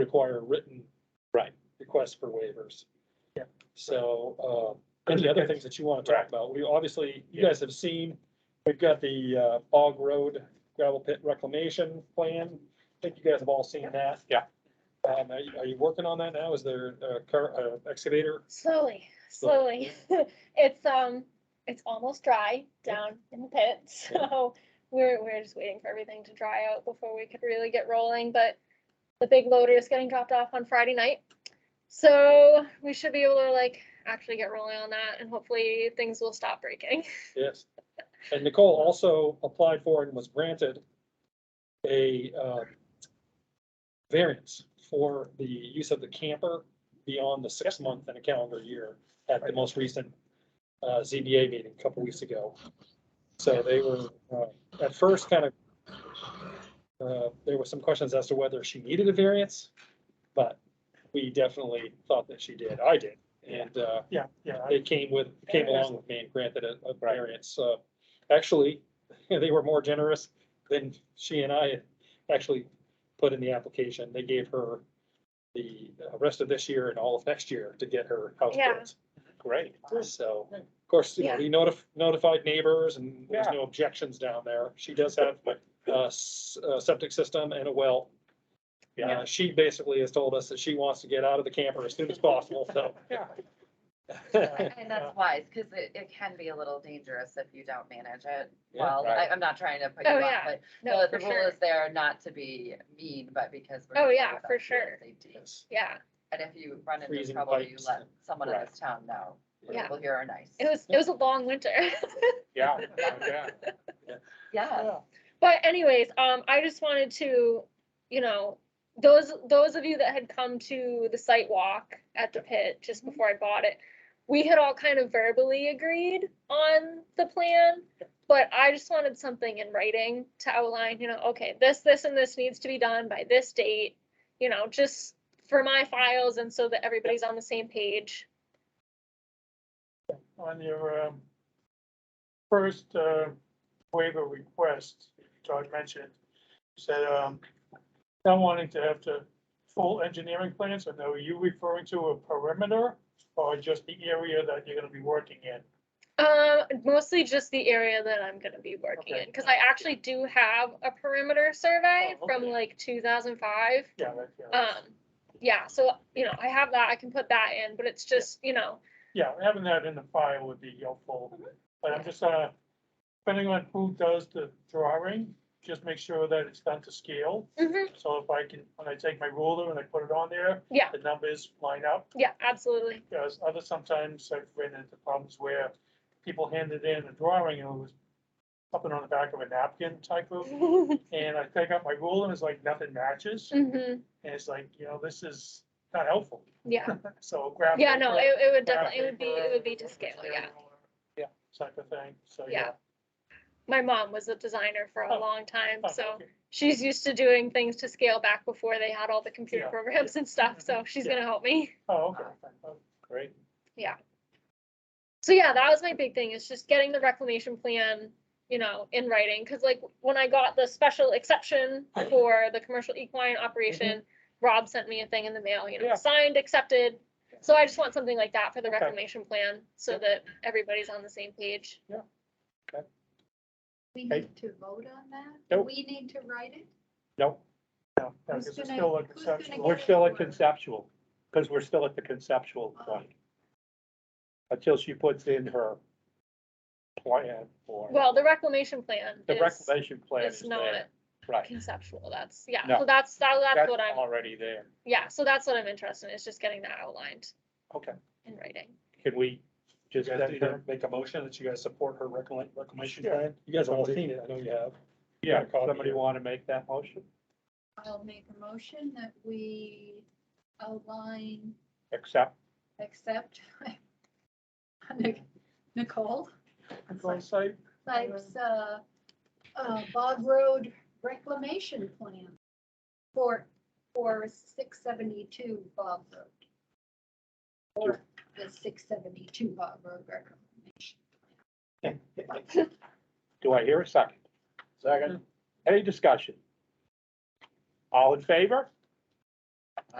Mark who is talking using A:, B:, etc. A: require written.
B: Right.
A: Requests for waivers.
C: Yeah.
A: So, uh, any other things that you want to talk
B: Right.
A: about? We obviously, you
B: Yeah.
A: guys have seen, we've got the, uh, Bog Road gravel pit reclamation plan. I think you guys have all seen that.
B: Yeah.
A: Um, are you, are you working on that now? Is there a car, uh, excavator?
D: Slowly, slowly. It's, um, it's almost dry down in the pit, so we're, we're just waiting for everything to dry out before we could really get rolling, but the big loader is getting dropped off on Friday night. So we should be able to like actually get rolling on that and hopefully things will stop breaking.
A: Yes. And Nicole also applied for and was granted a uh, variance for the use of the camper beyond the six month and a calendar year at the most recent uh, ZBA meeting a couple weeks ago. So they were, uh, at first kind of, uh, there were some questions as to whether she needed a variance, but we definitely thought that she did. I did. And uh,
C: Yeah, yeah, I-
A: it came with, came along with me and granted a, a
B: Right.
A: variance, so, actually, they were more generous than she and I actually put in the application, they gave her the uh, rest of this year and all of next year to get her house
D: Yeah.
A: built,
B: Great.
A: so, of course, you know,
D: Yeah.
A: we notif- notified neighbors and there's
B: Yeah.
A: no objections down there, she does have a s- a septic system and a well.
B: Yeah.
A: Uh, she basically has told us that she wants to get out of the camper as soon as possible, so.
B: Yeah.
E: And that's wise, because it, it can be a little dangerous if you don't manage it.
A: Yeah,
E: Well, I,
B: right.
E: I'm not trying to put you
D: Oh,
E: off,
D: yeah.
E: but
D: No,
E: the-
D: for
E: the rule
D: sure.
E: is there not to be mean, but because. we're
D: Oh,
E: concerned
D: yeah,
E: about
D: for
E: people's
D: sure.
E: safety.
A: Yes.
D: Yeah,
E: And if you run into
A: Freezing
E: trouble, you
A: pipes
E: let someone in
B: Right.
E: this town know. The
D: Yeah.
E: People here are nice.
D: it was, it was a long winter.
B: Yeah, yeah.
E: Yeah.
D: But anyways, um, I just wanted to, you know, those, those of you that had come to the site walk at the pit just before I bought it, we had all kind of verbally agreed on the plan, but I just wanted something in writing to outline, you know, okay, this, this, and this needs to be done by this date, you know, just for my files and so that everybody's on the same page.
C: on your um, first uh, waiver request, Todd mentioned, you said um, not wanting to have to full engineering plans, and are you referring to a perimeter or just the area that you're gonna be working in?
D: Uh, mostly just the area that I'm gonna be working in, because I actually do have a perimeter survey
C: Oh,
D: from
C: okay. Oh,
D: like two thousand five.
C: Yeah, that- yeah.
D: Um, yeah, so, you know, I have that, I can put that in, but it's just, you know,
C: Yeah, having that in the file would be helpful, but I'm just, uh, depending on who does the drawing, just make sure that it's done to scale.
D: mhm,
C: So if I can, when I take my ruler and I put it on there,
D: Yeah.
C: the numbers line up.
D: yeah, absolutely.
C: Because other sometimes I've ran into problems where people handed in a drawing and it was something on the back of a napkin type of,
D: Mhm,
C: and I take out my ruler and it's like nothing matches.
D: Mm.
C: And it's like, you know, this is not helpful.
D: yeah,
C: So grab.
D: yeah, no, it, it would
C: grab
D: definitely, it would be, it
C: paper,
D: would be to
C: which
D: scale,
C: area
D: yeah.
C: you wanna- Yeah, type of thing. So,
D: Yeah.
C: yeah.
D: My mom was a designer for a
C: Oh.
D: long time,
C: Oh,
D: so
C: okay.
D: she's used to doing things to scale back before they had all the computer
C: Yeah. Mm-hmm.
D: programs and stuff, so she's
C: Yeah.
D: gonna help me.
C: Oh, okay. Oh,
B: Great.
D: So yeah, that was my big thing, is just getting the reclamation plan, you know, in writing, cause like, when I got the special exception for the commercial equine
B: Mm-hmm.
D: operation, Rob sent me a thing in the mail, you know,
C: Yeah.
D: signed, accepted, so I just want something like that for the
C: Okay.
D: reclamation plan, so that everybody's on the same page.
F: We
B: Okay.
F: need to vote on that?
B: Nope.
F: We need to write it?
B: Nope,
C: no, no, 'cause
F: Who's
C: it's
F: gonna-
C: still a
F: who's gonna
C: conceptual.
F: get
B: we're still at conceptual, because we're still at the conceptual point. Until she puts in her plan for.
D: Well, the reclamation plan
B: The
D: is,
B: reclamation plan
D: is
B: is there,
D: not
B: right.
D: conceptual, that's, yeah,
B: No.
D: so that's, that- that's
B: That's
D: what I'm,
B: already there.
D: yeah, so that's what I'm interested in, is just getting that outlined
B: Okay,
D: in writing.
B: can we
A: You
B: just
A: guys
B: send
A: need to
B: her?
A: make a motion that you guys support her recommend, recommendation
B: Sure.
A: plan? You guys have all seen it, I know you have.
B: Yeah,
A: Copy it.
B: somebody want to make that motion?
F: I'll make a motion that we align,
B: Accept,
F: accept Nicole,
C: Control site.
F: types, uh, uh, Bog Road reclamation plan for, for six seventy-two Bog Road. Or the six seventy-two Bog Road reclamation.
B: do I hear a second?
C: Second.
B: Any discussion? All in favor?